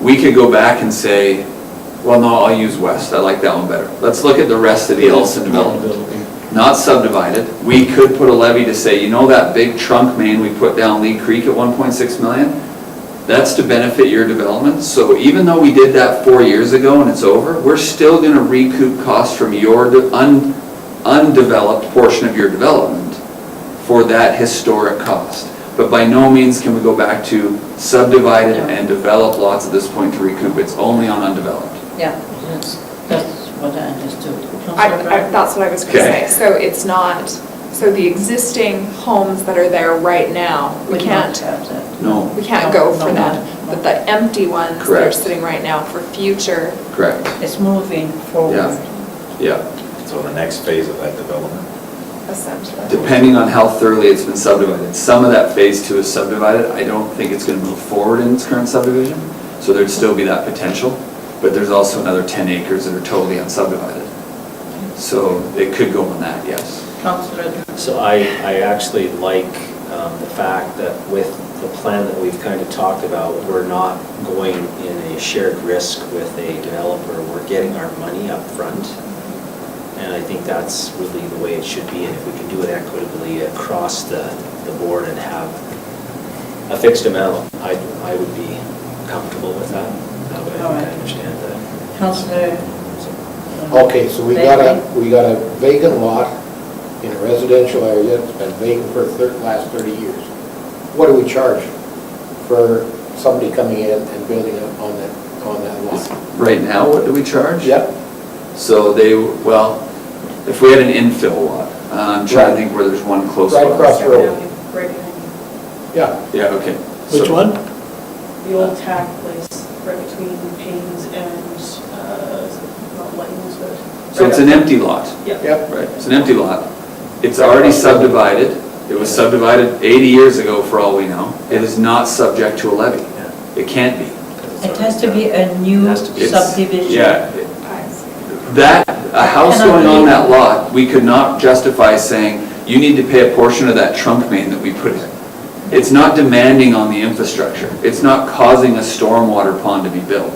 we could go back and say, well, no, I'll use west, I like that one better. Let's look at the rest of the Ellison development, not subdivided. We could put a levy to say, you know that big trunk main we put down Lee Creek at one point six million? That's to benefit your development, so even though we did that four years ago and it's over, we're still gonna recoup costs from your de- un- undeveloped portion of your development for that historic cost. But by no means can we go back to subdivided and develop lots at this point to recoup, it's only on undeveloped. Yeah, that's, that's what I understood. I, I, that's what I was gonna Okay. say, so it's not, so the existing homes that are there right now, we Would not can't, have that. No, we No, can't go for no, no, them. no. But the empty ones that are Correct. sitting right now for future, correct, It's moving forward. yeah. So the next phase of that development, essentially. Depending on how thoroughly it's been subdivided. Some of that phase two is subdivided, I don't think it's gonna move forward in its current subdivision, so there'd still be that potential, but there's also another ten acres that are totally unsubdivided. So it could go on that, yes. Councillor, So I, I actually like um, the fact that with the plan that we've kind of talked about, we're not going in a shared risk with a developer. We're getting our money up front, And I think that's really the way it should be. And if we can do it equitably across the, the board and have a fixed amount, I, I would be comfortable with that. That way All I right. understand that. councillor. uh, Okay, so we got a, we got a vacant lot in a residential area, it's been vacant for the last 30 years. What do we charge for somebody coming in and building up on that, on that lot? Right now, what do we charge? Yep, So they, well, if we had an infill lot, uh, I'm trying to think where there's one close by. Right across the road. Right, yeah. Yeah, okay. So- the old tack place, right between Payne's and, uh, not Lightning's, but. So it's an empty lot, Yeah. Yep, right, it's an empty lot. It's already subdivided, it was subdivided 80 years ago for all we know. It is not subject to a levy, Yeah. it can't be. It has to be a new Has to be. It's- subdivision. Yeah, I see. that, a house going on that lot, we could not justify saying, you need to pay a portion of that trunk main that we put in. It's not demanding on the infrastructure, it's not causing a stormwater pond to be built.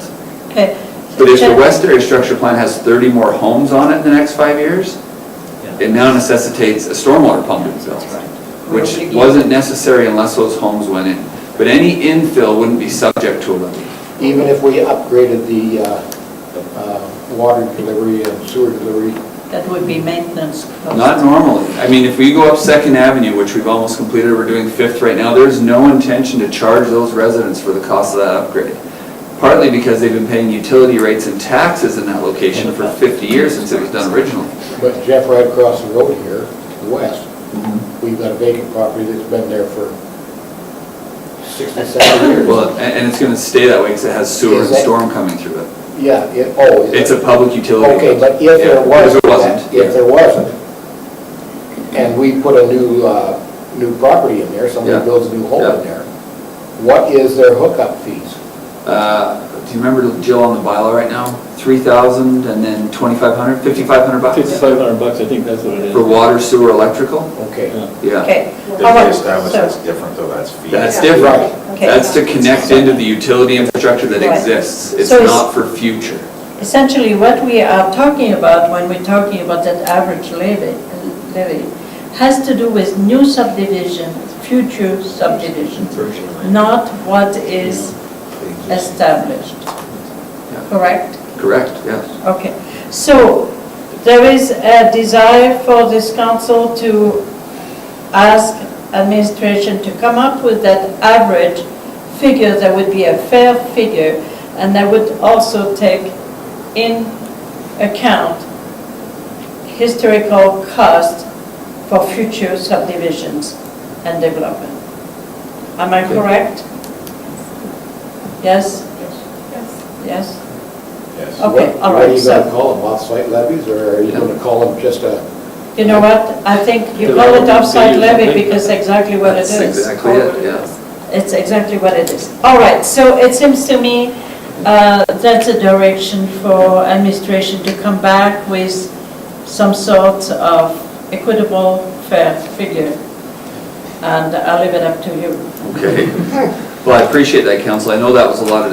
Okay. But if the West Area Structure Plan has 30 more homes on it in the next five years, Yeah. it now necessitates a stormwater pump being built, which wasn't necessary unless those homes went in. But any infill wouldn't be subject to a levy. even if we upgraded the uh, uh, water delivery and sewer delivery, That would be maintenance cost. Not normally. I mean, if we go up Second Avenue, which we've almost completed, we're doing Fifth right now, there's no intention to charge those residents for the cost of that upgrade. Partly because they've been paying utility rates and taxes in that location for 50 years since it was done originally. but Jeff, right across the road here, west, we've got a vacant property that's been there for 67 years. Well, a- and it's going to stay that way because it has sewer and storm coming through it. Yeah, it, oh. is it? It's a public utility. Okay, but if Yeah, there because was, It wasn't. if there wasn't, and we put a new, uh, new property in there, Yeah. somebody builds a new home Yeah. in there, what is their hookup fees? Uh, Do you remember Jill on the bylaw right now? 3,000 and then 2,500, 5,500 bucks? Fifty-five hundred bucks, I think that's what it is. For water, sewer, electrical? Okay, Yeah. Yeah. Okay. if how they about- establish so- that's different, though, that's fee. That's Yeah. different. Okay. That's to connect into the utility infrastructure that Right. exists. It's So it's- not for future. Essentially, what we are talking about when we're talking about that average levy, levy, has to do with new subdivision, future subdivision, Version of it. not what is established, Yeah. correct? Correct, yes. Okay, so there is a desire for this council to ask administration to come up with that average figure that would be a fair figure and that would also take in account historical cost for future subdivisions and development. Am I correct? Yes, Yes. yes? Yes. so Okay, all what, what are right, you gonna so- call them, off-site levies, or are you gonna call them just a, You know what, I think you call it offside levy because exactly what it That's is. exactly it, yeah. It's exactly what it is. All right, so it seems to me uh, that's a direction for administration to come back with some sort of equitable, fair figure. And I'll leave it up to you. Okay. Well, I appreciate that, council. I know that was a lot of